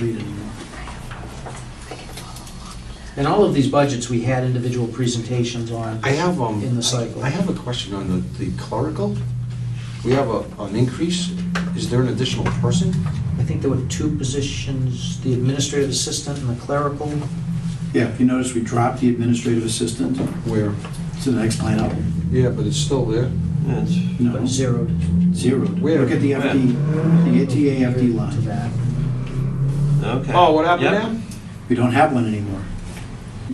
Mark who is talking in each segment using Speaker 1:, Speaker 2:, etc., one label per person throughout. Speaker 1: read anymore. And all of these budgets, we had individual presentations on.
Speaker 2: I have, um,
Speaker 1: In the cycle.
Speaker 2: I have a question on the, the clerical. We have a, an increase. Is there an additional person?
Speaker 1: I think there were two positions, the administrative assistant and the clerical.
Speaker 3: Yeah, if you notice, we dropped the administrative assistant
Speaker 2: Where?
Speaker 3: to the next line up.
Speaker 2: Yeah, but it's still there.
Speaker 4: Yes.
Speaker 3: No,
Speaker 1: But zeroed
Speaker 3: zeroed.
Speaker 2: Where?
Speaker 3: Look at the FD, the ATA FD
Speaker 1: to
Speaker 3: line.
Speaker 1: that.
Speaker 4: Okay.
Speaker 2: Oh, what happened
Speaker 4: Yep.
Speaker 2: now?
Speaker 3: We don't have one anymore.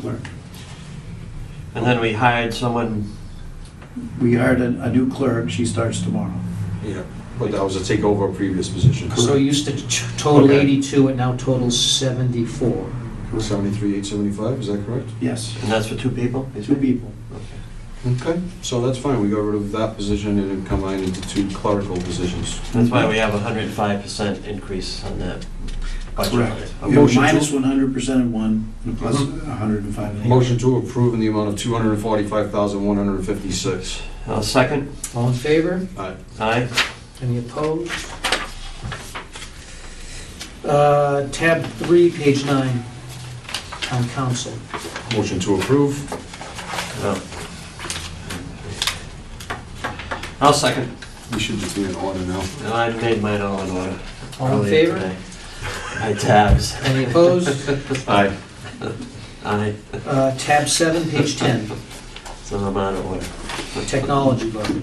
Speaker 3: Clerk.
Speaker 4: And then we hired someone,
Speaker 3: We hired a, a new clerk, she starts tomorrow.
Speaker 2: Yeah, but that was a takeover of previous position.
Speaker 1: So it used to t- total
Speaker 2: Okay.
Speaker 1: 82, it now totals 74.
Speaker 2: Seventy-three, eight seventy-five, is that correct?
Speaker 3: Yes,
Speaker 4: and that's for two people?
Speaker 3: two people.
Speaker 2: Okay, so that's fine. We got rid of that position and it combined into two clerical positions.
Speaker 4: That's why we have a hundred and five percent increase on that budget.
Speaker 3: Correct.
Speaker 4: Okay.
Speaker 3: We have a
Speaker 2: Motion to- Uh-huh.
Speaker 3: minus one hundred percent in one, and a plus hundred and five in the other.
Speaker 2: Motion to approve in the amount of two hundred and forty-five thousand, one hundred and fifty-six.
Speaker 4: I'll Uh, second.
Speaker 1: All in favor?
Speaker 2: Aye.
Speaker 4: Aye.
Speaker 1: Any opposed? Uh, Tab 3, page 9, town council.
Speaker 2: Motion to approve.
Speaker 4: No. I'll second.
Speaker 2: We should just be in order now.
Speaker 4: And I made mine all in order.
Speaker 1: All in
Speaker 4: earlier
Speaker 1: favor?
Speaker 4: today. Aye, tabs.
Speaker 1: Any opposed?
Speaker 2: Aye.
Speaker 4: Aye,
Speaker 1: Uh, Tab 7, page 10,
Speaker 4: so I'm out of order.
Speaker 1: technology budget.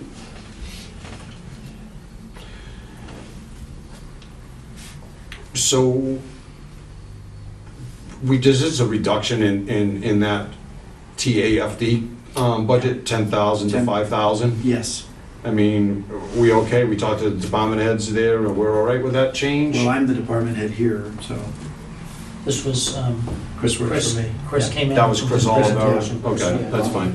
Speaker 2: So we, this is a reduction in, in, in that TAFD um, budget, 10,000 to
Speaker 3: Ten.
Speaker 2: 5,000.
Speaker 3: Yes,
Speaker 2: I mean, we okay? We talked to the department heads there, and we're all right with that change?
Speaker 3: well, I'm the department head here, so
Speaker 1: This was, um,
Speaker 3: Chris works
Speaker 1: Chris,
Speaker 3: for me.
Speaker 1: Chris came in.
Speaker 2: That was
Speaker 1: with
Speaker 2: Chris
Speaker 1: the
Speaker 2: Oliver.
Speaker 1: presentation.
Speaker 2: Okay,
Speaker 1: Yeah.
Speaker 2: that's fine.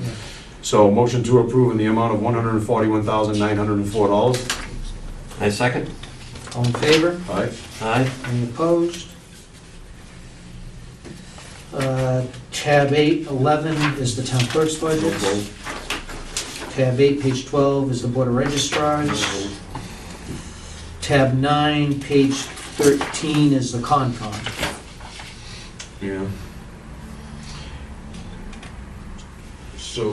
Speaker 2: So motion to approve in the amount of $141,904.
Speaker 4: I second.
Speaker 1: All in favor?
Speaker 2: Aye.
Speaker 4: Aye.
Speaker 1: Any opposed? Uh, Tab 8, 11 is the town clerk's
Speaker 2: No
Speaker 1: budget.
Speaker 2: vote.
Speaker 1: Tab 8, page 12 is the board of registrars. Tab 9, page 13 is the Concom.
Speaker 2: Yeah. So,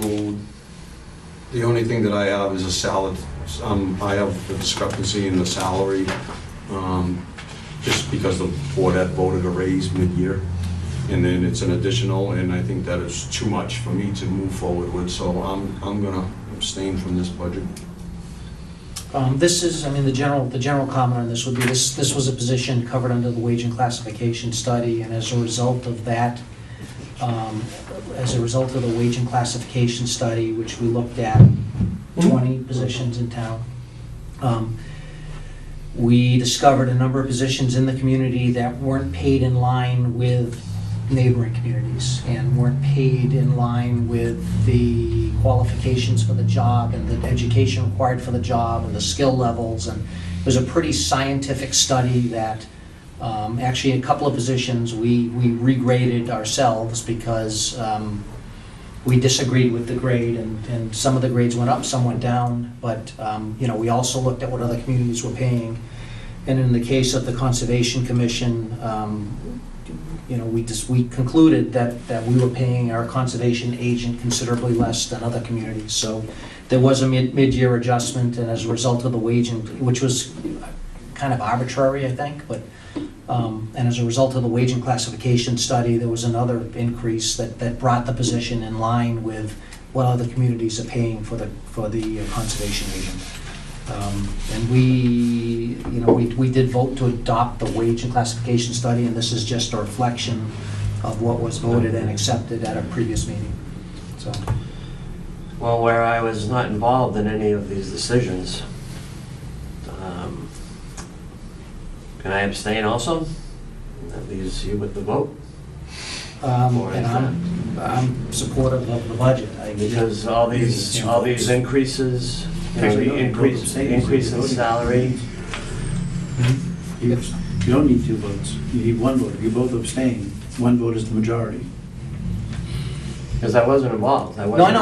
Speaker 2: the only thing that I have is a salad, um, I have the discrepancy in the salary, um, just because the board had voted a raise mid-year, and then it's an additional, and I think that is too much for me to move forward with, so I'm, I'm gonna abstain from this budget.
Speaker 1: Um, This is, I mean, the general, the general comment on this would be, this, this was a position covered under the wage and classification study, and as a result of that, um, as a result of the wage and classification study, which we looked at, 20 positions in town, um, we discovered a number of positions in the community that weren't paid in line with neighboring communities and weren't paid in line with the qualifications for the job and the education required for the job and the skill levels. And it was a pretty scientific study that, um, actually, a couple of positions, we, we regraded ourselves because um, we disagreed with the grade and, and some of the grades went up, some went down. But, um, you know, we also looked at what other communities were paying. And in the case of the Conservation Commission, um, you know, we just, we concluded that, that we were paying our conservation agent considerably less than other communities. So there was a mid, mid-year adjustment, and as a result of the wage, in- which was kind of arbitrary, I think, but, um, and as a result of the wage and classification study, there was another increase that, that brought the position in line with what other communities are paying for the, for the conservation agent. Um, And we, you know, we, we did vote to adopt the wage and classification study, and this is just a reflection of what was voted and accepted at a previous meeting. So,
Speaker 4: Well, where I was not involved in any of these decisions, um, can I abstain also? That leaves you with the vote,
Speaker 1: um,
Speaker 4: Or is
Speaker 1: and I'm, I'm supportive of the budget. I-
Speaker 4: because all these, all these increases, you know, the increase, increase in salary,
Speaker 3: You you don't need two votes, you need one vote. If you both abstain, one vote is the majority.
Speaker 4: because I wasn't involved, I
Speaker 1: No, I
Speaker 4: wasn't.
Speaker 1: know,